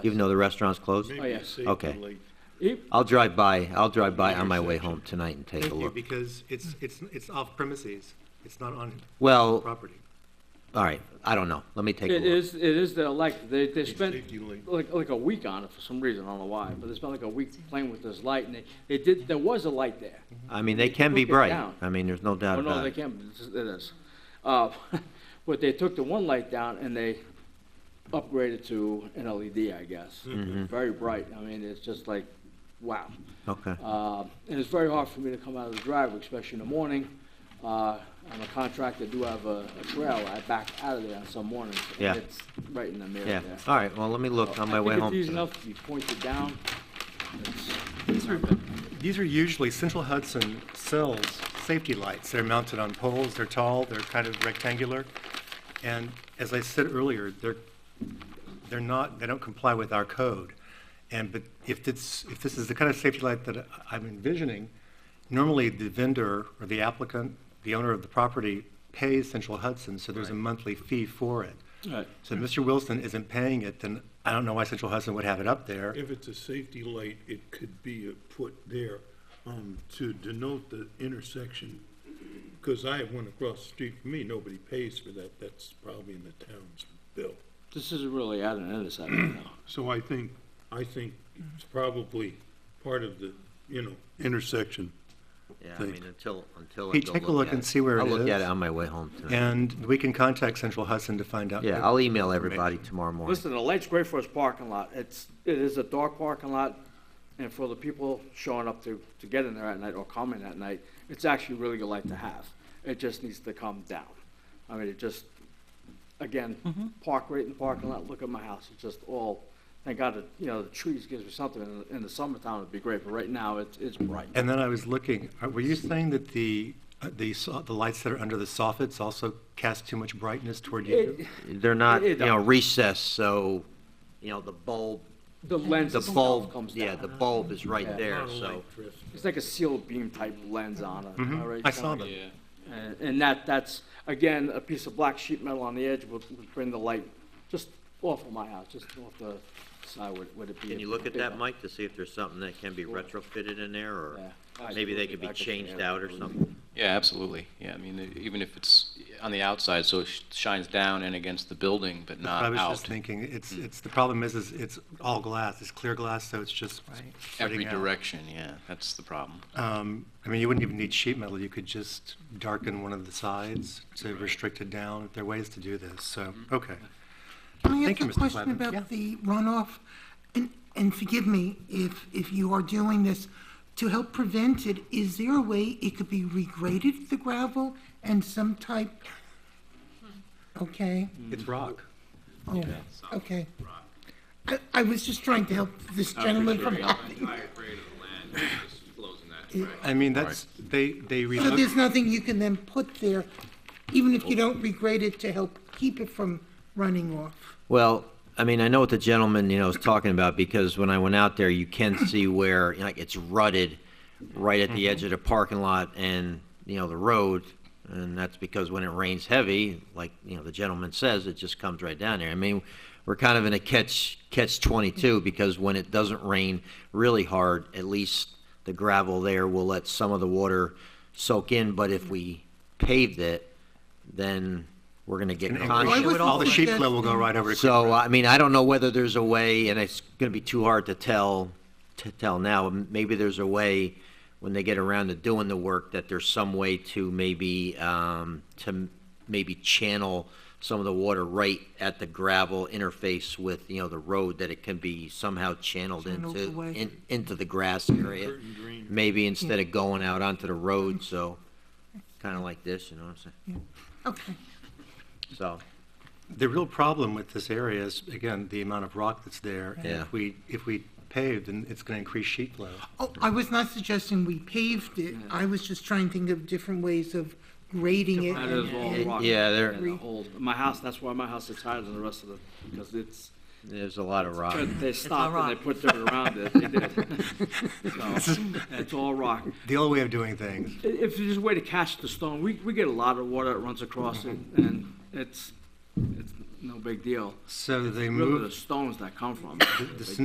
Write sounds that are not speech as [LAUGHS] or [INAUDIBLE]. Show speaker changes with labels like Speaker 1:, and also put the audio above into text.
Speaker 1: even though the restaurant's closed?
Speaker 2: Maybe
Speaker 3: Oh, yeah.
Speaker 2: it's safe
Speaker 1: Okay.
Speaker 2: and late.
Speaker 3: It-
Speaker 1: I'll drive by, I'll drive by on my way home tonight and take a
Speaker 4: Thank you,
Speaker 1: look.
Speaker 4: because it's, it's, it's off premises, it's not on
Speaker 1: Well,
Speaker 4: property.
Speaker 1: all right, I don't know, let me take a
Speaker 3: It
Speaker 1: look.
Speaker 3: is, it is the elect, they, they spent
Speaker 2: safety link.
Speaker 3: like, like a week on it for some reason, I don't know why, but they spent like a week playing with this light and they, they did, there was a light there.
Speaker 1: I mean, they can be
Speaker 3: Look it
Speaker 1: bright,
Speaker 3: down.
Speaker 1: I mean, there's no doubt
Speaker 3: Oh, no,
Speaker 1: about
Speaker 3: they
Speaker 1: it.
Speaker 3: can't, It's- it is. Uh, [LAUGHS] But they took the one light down and they upgraded to an LED, I guess.
Speaker 1: Mm-hmm.
Speaker 3: Very bright, I mean, it's just like, wow.
Speaker 1: Okay,
Speaker 3: Uh, And it's very hard for me to come out of the driveway, especially in the morning. Uh, I'm a contractor, do have a a trail, I back out of there on some mornings. and
Speaker 1: Yeah.
Speaker 3: It's right in the mirror
Speaker 1: yeah,
Speaker 3: there.
Speaker 1: all right, well, let me look on
Speaker 3: I
Speaker 1: my
Speaker 3: think
Speaker 1: way
Speaker 3: it's
Speaker 1: home.
Speaker 3: easy
Speaker 1: tonight.
Speaker 3: enough to be pointed down.
Speaker 4: These are, these are usually Central Hudson cells, safety lights. They're mounted on poles, they're tall, they're kind of rectangular. And as I said earlier, they're, they're not, they don't comply with our code. And, but if it's, if this is the kind of safety light that I'm envisioning, normally the vendor or the applicant, the owner of the property pays Central Hudson, so there's a monthly fee for it.
Speaker 3: Right.
Speaker 4: So if Mr. Wilson isn't paying it, then I don't know why Central Hudson would have it up there.
Speaker 2: If it's a safety light, it could be uh, put there um, to denote the intersection. Because I have one across the street from me, nobody pays for that, that's probably in the town's bill.
Speaker 3: This is really at an intersection now.
Speaker 2: So I think, I think it's probably part of the, you know, intersection.
Speaker 1: Yeah, I
Speaker 2: Thank-
Speaker 1: mean, until, until I
Speaker 4: Hey,
Speaker 1: go
Speaker 4: take a look
Speaker 1: at
Speaker 4: and
Speaker 1: it.
Speaker 4: see where it
Speaker 1: I'll look at
Speaker 4: is.
Speaker 1: it on my way home tonight.
Speaker 4: And we can contact Central Hudson to find out.
Speaker 1: Yeah, I'll email everybody tomorrow morning.
Speaker 3: Listen, the light's great for his parking lot. It's, it is a dark parking lot, and for the people showing up to, to get in there at night or coming at night, it's actually really good light to have. It just needs to come down. I mean, it just, again,
Speaker 1: Mm-hmm.
Speaker 3: park right in the parking lot, look at my house, it's just all, thank God, that, you know, the trees gives me something. In the- In the summertime, it'd be great, but right now, it's, it's bright.
Speaker 4: And then I was looking, uh, were you saying that the, uh, the, so- the lights that are under the soffits also cast too much brightness toward you?
Speaker 3: It-
Speaker 1: They're not,
Speaker 3: It- it
Speaker 1: you know,
Speaker 3: don't.
Speaker 1: recessed, so, you know, the bulb,
Speaker 3: The lens
Speaker 1: the
Speaker 3: itself
Speaker 1: bulb,
Speaker 3: comes down.
Speaker 1: yeah, the bulb is right
Speaker 3: Yeah.
Speaker 1: there, so.
Speaker 2: Light drift.
Speaker 3: It's like a sealed beam type lens on it. [LAUGHS]
Speaker 1: Mm-hmm.
Speaker 3: all right,
Speaker 4: Hmm? I saw
Speaker 3: John?
Speaker 4: them.
Speaker 3: And, and that, that's, again, a piece of black sheet metal on the edge would, would bring the light just off of my house, just off the side would, would it be.
Speaker 1: Can you look at that, Mike, to see if there's something that can be retrofitted in there, or
Speaker 3: Yeah.
Speaker 1: maybe they could be changed out or something?
Speaker 5: Yeah, absolutely. Yeah, I mean, e- even if it's on the outside, so it sh- shines down and against the building, but
Speaker 4: I
Speaker 5: not
Speaker 4: was just
Speaker 5: out.
Speaker 4: thinking, it's,
Speaker 1: Hmm.
Speaker 4: it's, the problem is, is it's all glass, it's clear glass, so it's just
Speaker 5: Every
Speaker 4: spreading out.
Speaker 5: direction, yeah, that's the problem.
Speaker 4: Um, I mean, you wouldn't even need sheet metal, you could just darken one of the sides to restrict it down. There are ways to do this, so,
Speaker 5: Hmm.
Speaker 4: okay.
Speaker 6: Can I
Speaker 4: Thank
Speaker 6: ask
Speaker 4: you,
Speaker 6: a
Speaker 4: Mr.
Speaker 6: question
Speaker 4: Plavin. Yeah.
Speaker 6: about the runoff? And, and forgive me if, if you are doing this, to help prevent it, is there a way it could be regraded, the gravel, and some type? Okay,
Speaker 4: It's rock.
Speaker 6: oh, okay. I, I was just trying to help this gentleman from helping.
Speaker 7: entire grade of the land that just flows in that direction.
Speaker 4: I mean, that's, they, they
Speaker 6: So
Speaker 4: relook.
Speaker 6: there's nothing you can then put there, even if you don't regrade it to help keep it from running off?
Speaker 1: Well, I mean, I know what the gentleman, you know, is talking about, because when I went out there, you can see where, you know, like, it's rutted right at the edge of the parking lot and, you know, the road, and that's because when it rains heavy, like, you know, the gentleman says, it just comes right down there. I mean, we're kind of in a catch, catch twenty-two, because when it doesn't rain really hard, at least the gravel there will let some of the water soak in, but if we paved it, then we're gonna get
Speaker 6: Why
Speaker 1: conscious.
Speaker 6: would
Speaker 4: All the
Speaker 6: we
Speaker 4: sheet
Speaker 6: get-
Speaker 4: flow will go right over to.
Speaker 1: So, I mean, I don't know whether there's a way, and it's gonna be too hard to tell, to tell now, maybe there's a way, when they get around to doing the work, that there's some way to maybe, um, to maybe channel some of the water right at the gravel interface with, you know, the road, that it can be somehow channeled
Speaker 6: Channeled
Speaker 1: into,
Speaker 6: away.
Speaker 1: in, into the grass area.
Speaker 2: Curtain green.
Speaker 1: Maybe instead of going out onto the road, so, kinda like this, you know what I'm saying?
Speaker 6: Okay.
Speaker 1: So,
Speaker 4: The real problem with this area is, again, the amount of rock that's there. And
Speaker 1: Yeah.
Speaker 4: if we, if we pave, then it's going to increase sheet flow.
Speaker 6: Oh, I was not suggesting we paved it, I was just trying to think of different ways of grading it.
Speaker 3: That is all
Speaker 6: and-
Speaker 3: rock.
Speaker 1: yeah, there-
Speaker 3: And the whole- My house, that's why my house is higher than the rest of the, because it's,
Speaker 1: there's a lot of rock.
Speaker 3: they stopped and they put dirt around it, they did. So, It's all rock.
Speaker 4: The old way of doing things.
Speaker 3: I- If there's a way to catch the stone, we, we get a lot of water that runs across it, and it's, it's no big deal.
Speaker 4: So they
Speaker 3: Really, the
Speaker 4: moved
Speaker 3: stones that come from. it.
Speaker 4: the
Speaker 3: Big